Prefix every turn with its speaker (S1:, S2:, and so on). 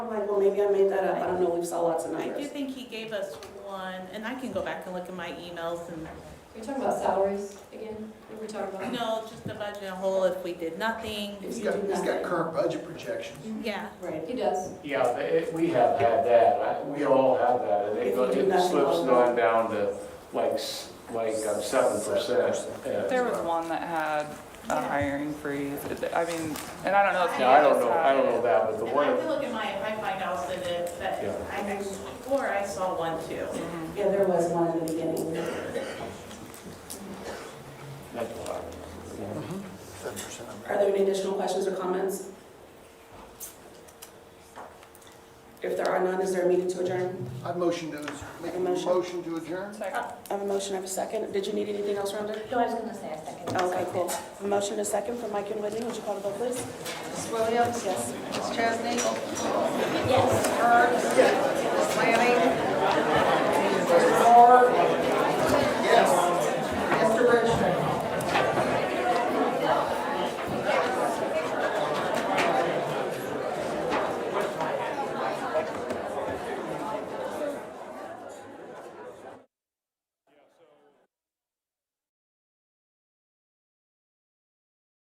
S1: maybe I made that up, I don't know, we saw lots of
S2: I do
S1: numbers.
S2: think he gave us one, and I can go back and look at my emails and,
S3: Are you talking about salaries again? What are we talking about?
S2: no, just the budget in whole, if we did nothing,
S1: If
S4: He's
S1: you
S4: got,
S1: do
S4: he's got
S1: nothing.
S4: current budget projections.
S2: yeah.
S1: Right,
S3: He does.
S5: Yeah, but it- we have had that, I- we all have that, and
S1: If
S5: it
S1: you
S5: goes-
S1: do
S5: it
S1: nothing
S5: slips
S1: wrong.
S5: on down to like, s- like um, seven percent.
S6: There was one that had
S5: Uh,
S6: a hiring freeze. I mean, and I don't know if.
S5: Now, I don't know, I don't know that, but the
S2: And I
S5: one,
S2: can look at my, I find out that, it- that,
S5: Yeah.
S2: I, I swore I saw one too.
S5: Mm-hmm.
S1: yeah, there was one in the beginning.
S5: that's what I remember. yeah.
S4: Seven percent.
S1: Are there any additional questions or comments? If there are none, is there a meeting to adjourn?
S4: I motion to, make a
S1: Motion.
S4: motion to adjourn?
S6: Second.
S1: I have a motion, I have a second. Did you need anything else, Rhonda?
S7: No, I was gonna say a second.
S1: Okay, cool. A motion, a second from Mike and Whitney. Would you call the vote, please?
S8: Mrs. Williams?
S1: Yes.
S8: Mrs. Chesney?